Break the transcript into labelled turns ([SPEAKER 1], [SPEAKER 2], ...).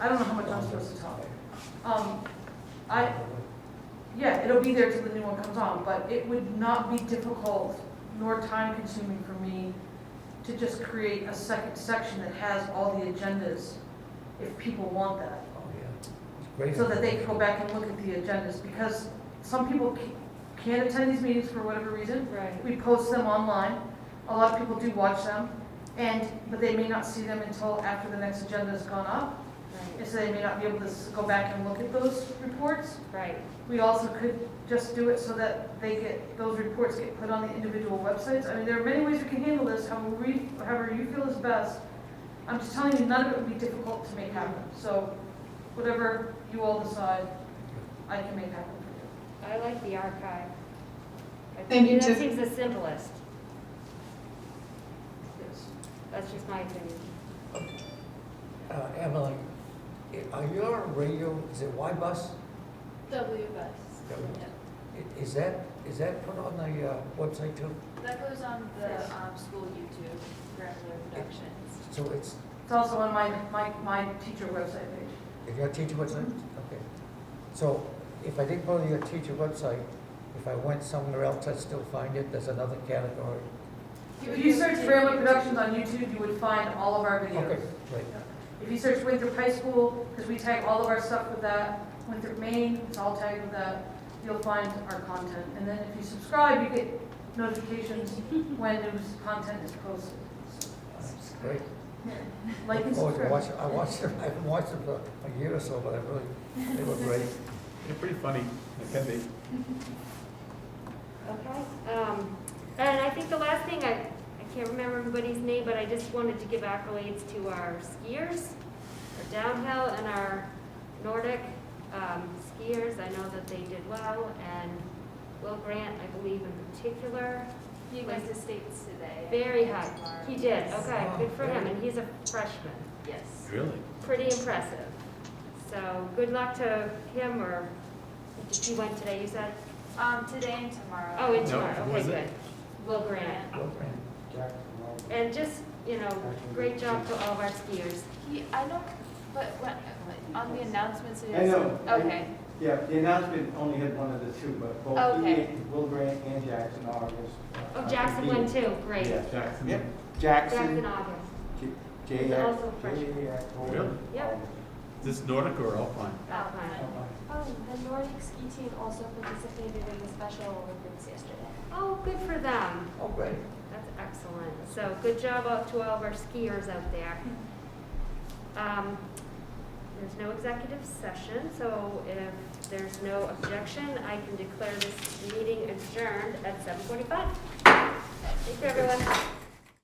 [SPEAKER 1] I don't know how much I'm supposed to talk. Um, I, yeah, it'll be there till the new one comes on, but it would not be difficult nor time consuming for me to just create a second section that has all the agendas if people want that.
[SPEAKER 2] Oh, yeah. It's great.
[SPEAKER 1] So that they can go back and look at the agendas because some people ca- can't attend these meetings for whatever reason.
[SPEAKER 3] Right.
[SPEAKER 1] We post them online. A lot of people do watch them and, but they may not see them until after the next agenda's gone up.
[SPEAKER 3] Right,
[SPEAKER 1] And so they may not be able to s- go back and look at those reports.
[SPEAKER 3] right,
[SPEAKER 1] We also could just do it so that they get, those reports get put on the individual websites. I mean, there are many ways we can handle this, however we, however you feel is best. I'm just telling you, none of it would be difficult to make happen. So whatever you all decide, I can make happen for
[SPEAKER 3] I like the archive. I
[SPEAKER 4] Thank you,
[SPEAKER 3] think That
[SPEAKER 4] Tiff-
[SPEAKER 3] seems the simplest,
[SPEAKER 1] you. Yes.
[SPEAKER 3] that's just my opinion.
[SPEAKER 2] Uh, Emily, i- are you on radio, is it Y bus?
[SPEAKER 5] WBS.
[SPEAKER 2] Yeah. I- Is that, is that put on the uh, website too?
[SPEAKER 5] That goes on the
[SPEAKER 1] Yes.
[SPEAKER 5] um, school YouTube, Granular Productions.
[SPEAKER 2] So it's,
[SPEAKER 1] It's also on my, my, my teacher website page.
[SPEAKER 2] if your teacher website,
[SPEAKER 1] Mm-hmm.
[SPEAKER 2] okay. So if I didn't go to your teacher website, if I went somewhere else, I'd still find it, there's another category.
[SPEAKER 1] If you search Fairway Productions on YouTube, you would find all of our videos.
[SPEAKER 2] Okay, great.
[SPEAKER 1] If you search Winthrop High School, because we tag all of our stuff with that, Winthrop, Maine, it's all tagged with that, you'll find our content. And then if you subscribe, you get notifications when news content is posted.
[SPEAKER 2] That's great.
[SPEAKER 1] Like and
[SPEAKER 2] Oh, I
[SPEAKER 1] subscribe.
[SPEAKER 2] watched, I watched them, I haven't watched them for a year or so, but I really, they were great.
[SPEAKER 6] They're pretty funny, they can be.
[SPEAKER 3] Okay. Um, and I think the last thing, I, I can't remember everybody's name, but I just wanted to give accolades to our skiers, our downhill and our Nordic, um, skiers. I know that they did well, and Will Grant, I believe in particular,
[SPEAKER 5] He went to states today.
[SPEAKER 3] very
[SPEAKER 5] and
[SPEAKER 3] high.
[SPEAKER 5] tomorrow.
[SPEAKER 3] He did,
[SPEAKER 5] Yes.
[SPEAKER 3] okay, good for him, and he's a freshman.
[SPEAKER 5] Yes.
[SPEAKER 6] Really?
[SPEAKER 3] pretty impressive. So good luck to him or, did you win today, you said?
[SPEAKER 5] Um, today and tomorrow.
[SPEAKER 3] Oh, and
[SPEAKER 6] Uh, No,
[SPEAKER 3] tomorrow,
[SPEAKER 6] who
[SPEAKER 3] okay,
[SPEAKER 6] was
[SPEAKER 3] good.
[SPEAKER 6] it?
[SPEAKER 3] Will Grant.
[SPEAKER 2] Well,
[SPEAKER 3] And just, you know, great job to all of our skiers.
[SPEAKER 5] He, I don't, but when, when- on the announcements, it is.
[SPEAKER 7] I know.
[SPEAKER 5] Okay,
[SPEAKER 7] Yeah, the announcement only had one of the two, but both
[SPEAKER 5] Okay.
[SPEAKER 7] he- Will Grant and Jackson uh, August.
[SPEAKER 3] Oh, Jackson won too, great.
[SPEAKER 7] Yeah,
[SPEAKER 6] Jackson.
[SPEAKER 7] Yep,
[SPEAKER 3] Jackson
[SPEAKER 7] Jackson,
[SPEAKER 3] August.
[SPEAKER 7] J- J.
[SPEAKER 3] He's also a freshman.
[SPEAKER 6] Really?
[SPEAKER 7] Jackson.
[SPEAKER 3] Yep.
[SPEAKER 6] Is this Nordic or Alpine?
[SPEAKER 5] Um,
[SPEAKER 3] Alpine.
[SPEAKER 8] Oh, the Nordic ski team also participated in the Special Olympics yesterday.
[SPEAKER 3] Oh, good for them.
[SPEAKER 2] Oh, great.
[SPEAKER 3] That's excellent. So good job out to all of our skiers out there. Um, There's no executive session, so if there's no objection, I can declare this meeting adjourned at 7:45. Thank you, everyone.